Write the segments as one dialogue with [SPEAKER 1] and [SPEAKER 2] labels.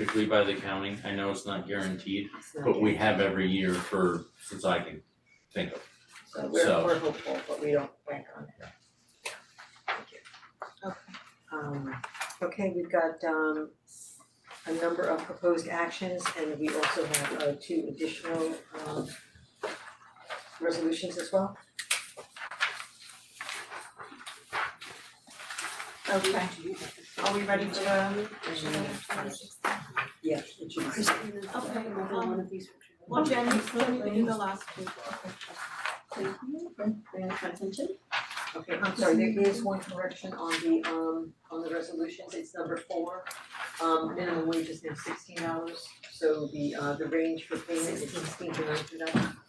[SPEAKER 1] typically by the county. I know it's not guaranteed, but we have every year for, since I can think of.
[SPEAKER 2] So we're
[SPEAKER 1] So-
[SPEAKER 2] we're hopeful, but we don't bank on it.
[SPEAKER 3] Um, okay, we've got um a number of proposed actions and we also have uh two additional um resolutions as well.
[SPEAKER 2] Okay, are we ready for the?
[SPEAKER 3] Yeah, it should be-
[SPEAKER 2] Okay,
[SPEAKER 4] One of these.
[SPEAKER 2] Well, Jen, can you do the last two?
[SPEAKER 4] Thank you for bringing that to my attention.
[SPEAKER 3] okay, I'm sorry, there is one correction on the um on the resolutions, it's number four. Um minimum wage is now sixteen dollars, so the uh the range for payment is sixteen to nineteen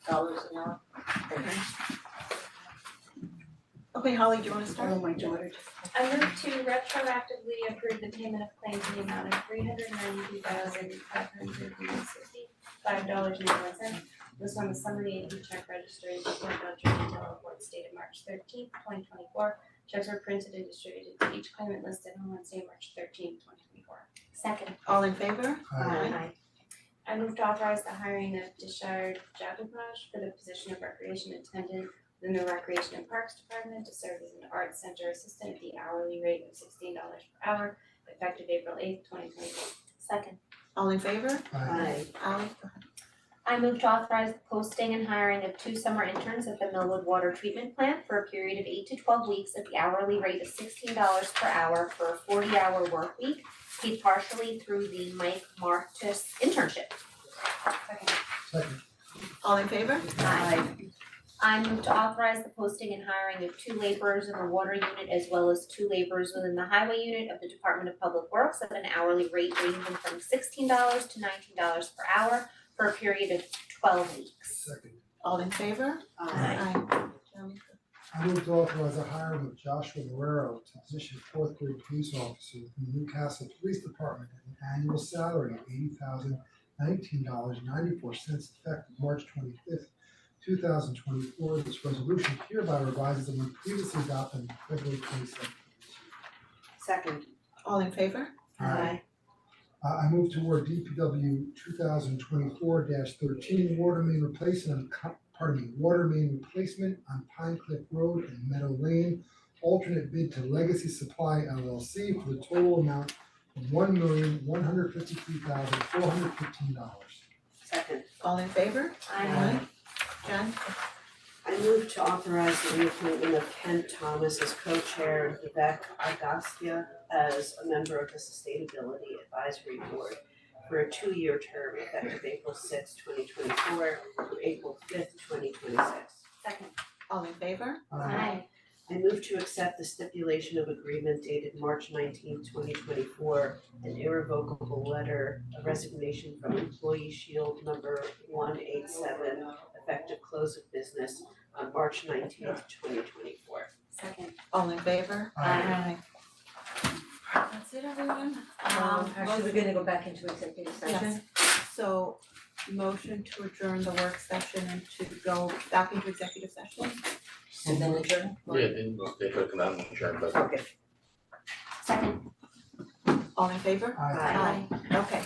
[SPEAKER 3] dollars an hour. Okay.
[SPEAKER 2] Okay, Holly, do you wanna start?
[SPEAKER 4] Oh, my daughter.
[SPEAKER 5] I move to retroactively approve the payment of claims in the amount of three hundred ninety-two thousand five hundred and sixty-five dollars and one cent. This on the summary and check registry is for voucher detail reports dated March thirteenth, twenty twenty-four. Checks were printed and distributed to each claimant listed on Wednesday, March thirteenth, twenty twenty-four. Second.
[SPEAKER 2] All in favor?
[SPEAKER 5] I move to authorize the hiring of Deshard Jagdabaj for the position of recreation attendant in the Recreation and Parks Department to serve as an art center assistant at the hourly rate of sixteen dollars per hour effective April eighth, twenty twenty four. Second.
[SPEAKER 2] All in favor?
[SPEAKER 4] Aye.
[SPEAKER 2] Ally?
[SPEAKER 6] I move to authorize the posting and hiring of two summer interns at the Millwood Water Treatment Plant for a period of eight to twelve weeks at the hourly rate of sixteen dollars per hour for a forty-hour work week, paid partially through the Mike Martus internship.
[SPEAKER 5] Second.
[SPEAKER 2] All in favor?
[SPEAKER 6] Aye. I move to authorize the posting and hiring of two laborers in the water unit as well as two laborers within the highway unit of the Department of Public Works at an hourly rate ranging from sixteen dollars to nineteen dollars per hour for a period of twelve weeks.
[SPEAKER 2] All in favor? Aye.
[SPEAKER 7] I move to authorize the hiring of Joshua Guerrero to position fourth grade police officer in the Newcastle Police Department at an annual salary of eighty thousand nineteen dollars ninety-four cents effective March twenty-fifth, two thousand twenty-four. This resolution hereby revises the one previously adopted on February twenty-seventh.
[SPEAKER 4] Second.
[SPEAKER 2] All in favor?
[SPEAKER 7] Uh, I move toward DPW two thousand twenty-four thirteen water main replacement, co- pardon me, water main replacement on Pine Cliff Road and Meadow Lane. Alternate bid to Legacy Supply LLC for the total amount of one million, one hundred fifty-three thousand, four hundred fifteen dollars.
[SPEAKER 4] Second.
[SPEAKER 2] All in favor?
[SPEAKER 6] I
[SPEAKER 2] Jen?
[SPEAKER 4] I move to authorize the reappointment of Ken Thomas as co-chair and Vivek Agastya as a member of the Sustainability Advisory Board for a two-year term effective April sixth, twenty twenty-four through April fifth, twenty twenty-six.
[SPEAKER 6] Second.
[SPEAKER 2] All in favor?
[SPEAKER 7] Uh,
[SPEAKER 4] I move to accept the stipulation of agreement dated March 19, twenty twenty-four, an irrevocable letter of resignation from employee shield number one eight seven, effective close of business on March nineteenth, twenty twenty-four.
[SPEAKER 6] Second.
[SPEAKER 2] All in favor?
[SPEAKER 7] Aye.
[SPEAKER 2] That's it,
[SPEAKER 3] Um,
[SPEAKER 2] everyone. Um,
[SPEAKER 3] actually, we're
[SPEAKER 2] motion-
[SPEAKER 3] gonna go back into executive session.
[SPEAKER 2] Yes. So, motion to adjourn the work session and to go back into executive session?
[SPEAKER 3] And then adjourn?
[SPEAKER 8] Yeah, they, they could come out and check, but
[SPEAKER 3] Okay.
[SPEAKER 6] Second.
[SPEAKER 2] All in favor?
[SPEAKER 7] Aye.
[SPEAKER 2] Okay,